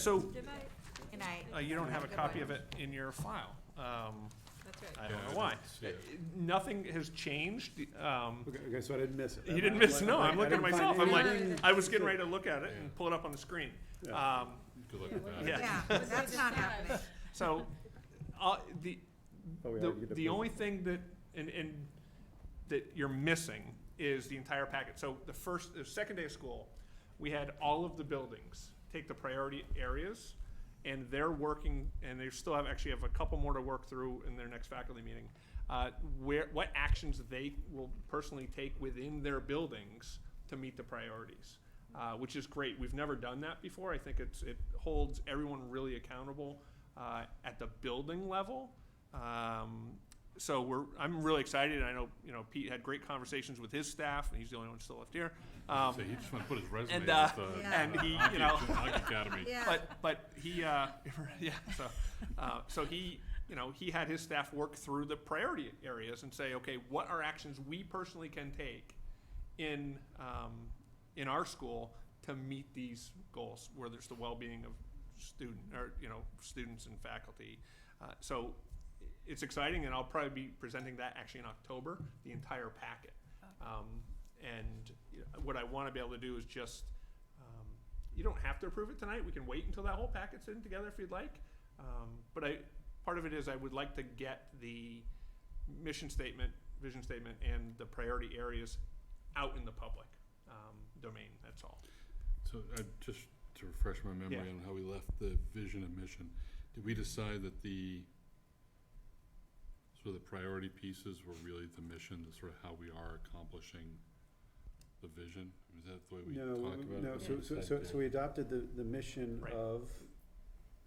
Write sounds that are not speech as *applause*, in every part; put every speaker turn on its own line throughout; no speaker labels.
So,
Good night.
uh, you don't have a copy of it in your file. Um,
That's
I don't
right.
Yeah, I
know
didn't
why.
see it.
Uh, Nothing has changed. um,
Okay, okay, so I didn't miss it.
You didn't miss, no, I'm looking at myself, I'm like,
anything.
I was getting ready to look at it and pull it up on the screen.
Yeah.
Um,
Good luck with that.
Yeah.
Yeah, that's not happening.
So, uh, the,
Oh, we
the,
already did
the
approve.
only thing that, and, and that you're missing is the entire packet. So the first, the second day of school, we had all of the buildings take the priority areas, and they're working, and they still have, actually have a couple more to work through in their next faculty meeting. Uh, where, what actions they will personally take within their buildings to meet the priorities, uh, which is great. We've never done that before. I think it's, it holds everyone really accountable, uh, at the building level. Um, so we're, I'm really excited. and I know, you know, Pete had great conversations with his staff, and he's the only one still left here. Um,
So he just wanna put his resume
and,
with
uh,
the.
Yeah.
and
the
he,
Hockey-
you know-
Hockey Academy.
Yeah,
but but he, uh, *laughs* yeah. So uh, so he, you know, he had his staff work through the priority areas and say, okay, what are actions we personally can take in um, in our school to meet these goals, whether it's the well-being of student or you know students and faculty. Uh, so it's exciting, and I'll probably be presenting that actually in October, the entire packet. Um, and you know, what I want to be able to do is just, um, you don't have to approve it tonight. We can wait until that whole packet's in together if you'd like. Um, but I, part of it is I would like to get the mission statement, vision statement, and the priority areas out in the public um, domain. That's all.
So, uh, just to refresh my memory
Yeah.
on how we left the vision and mission, did we decide that the, so the priority pieces were really the mission, the sort of how we are accomplishing the vision? Was that the way we
No,
talked about it?
no, so, so,
Okay.
so, so we adopted the, the mission
Right.
of,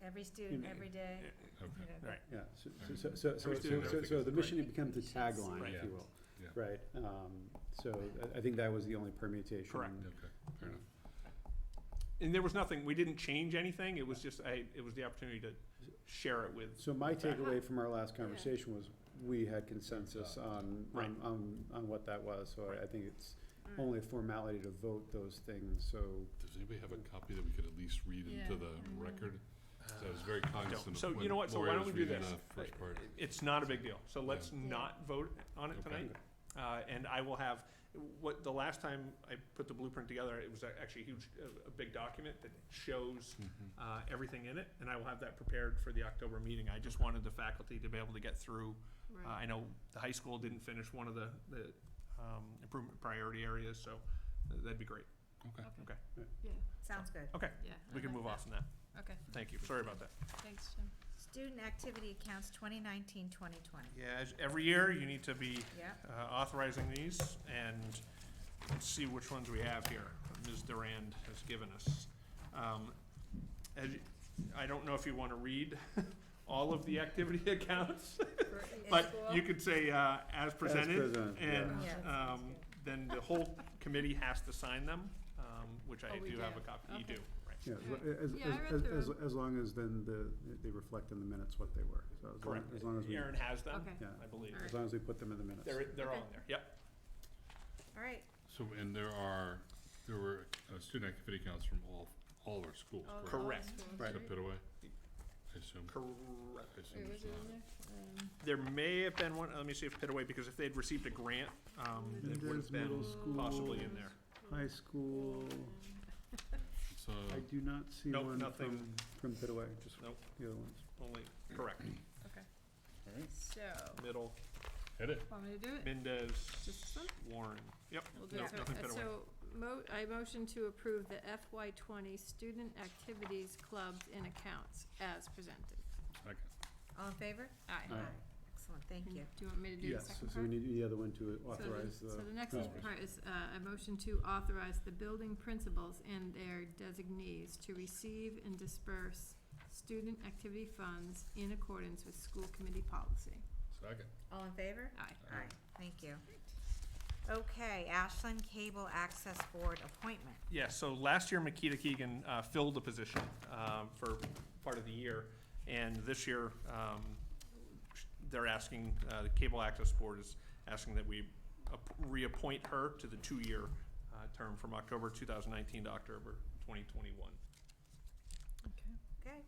every student,
You-
every day. Mm.
Okay,
yeah, so, so- so, so, so,
Every student
so- so, so the
verification.
mission becomes the tagline,
Right.
if you will.
Yeah.
Right, um, so I, I think that was the only permutation.
Correct.
okay, fair enough.
And there was nothing. We didn't change anything. It was just I. It was the opportunity to share it with.
So my takeaway from our last conversation was, we had consensus on,
Right.
on, on, on what that was, so I- I think it's
Mm.
only a formality to vote those things, so.
Does anybody have a copy that we could at least read into
Yeah,
the
I know.
record? 'Cause I was very cognizant
So
of
you
when
know what? So why
Lori
don't
was
we do
reading
this? Uh,
the first part.
It's not a big deal. So
Yeah.
let's
Yeah.
not vote on it
Okay.
tonight. Uh, and I will have, what, the last time I put the blueprint together, it was a- actually a huge, a, a big document that shows,
Mhm.
uh, everything in it, and I will have that prepared for the October meeting. I just wanted the faculty to be able to get through. Uh, I know the high school didn't finish one of the, the, um, improvement priority areas, so that'd be great.
Okay.
Okay,
Sounds good.
okay,
Yeah.
we can move on from that.
Okay.
Thank you. Sorry about that.
Thanks, Jim.
Student activity accounts 2019, 2020.
Yeah, as- every year you need to be
Yeah,
uh, authorizing these, and let's see which ones we have here, that Ms. Durand has given us. Um, as you- I don't know if you want to read *laughs* all of the activity *laughs* accounts, but you could say, uh, as presented,
presented, yeah.
and,
Yeah.
um, then the whole committee has to sign them, um, which I
Oh, we
do have a
do.
copy, you
Okay.
do, right.
Yeah, as lo-
Right.
as,
Yeah, I read
as,
through
as, as,
them.
as long as then the, they reflect in the minutes what they were, so as long,
Correct,
as long as we,
Aaron has them,
Okay.
yeah,
I believe,
Alright.
as long as we put them in the minutes.
they're, they're all
Okay.
in there, yep,
all right.
So, and there are, there were uh, student activity accounts from all, all of our schools,
All- all
correct?
Correct.
those ones,
Right.
Except Pitaway, I assume.
correct.
I assume
Wait, was
it's
it
not.
in there? Um,
There may have been one, let me see if Pitaway, because if they'd received a grant, um, it would have
There's middle
been
school.
possibly in there.
High school,
It's, uh,
I do not see
Nope,
one from,
nothing.
from Pitaway, just
Nope.
the other ones.
Only, correct,
So,
middle,
edit.
want me to do it?
Mendez,
Just this one?
Warren, yep,
We'll do
no,
it. So-
nothing
uh,
Pitaway.
So, mo- I motion to approve the FY twenty student activities, clubs, and accounts as presented.
Second.
All in favor?
Aye.
Aye.
Excellent, thank you.
Do you want me to do the
Yes,
second part?
so we need the other one to
So the-
authorize the.
So the next
Oh.
part is uh, a motion to authorize the building principals and their designees to receive and disperse student activity funds in accordance with school committee policy.
Second.
All in favor?
Aye.
All right. Thank you. Okay, Ashland Cable Access Board appointment.
Yeah, so last year Makita Keegan uh, filled the position um, for part of the year, and this year um, they're asking, uh, the Cable Access Board is asking that we ap- reappoint her to the two-year uh, term from October 2019 to October 2021.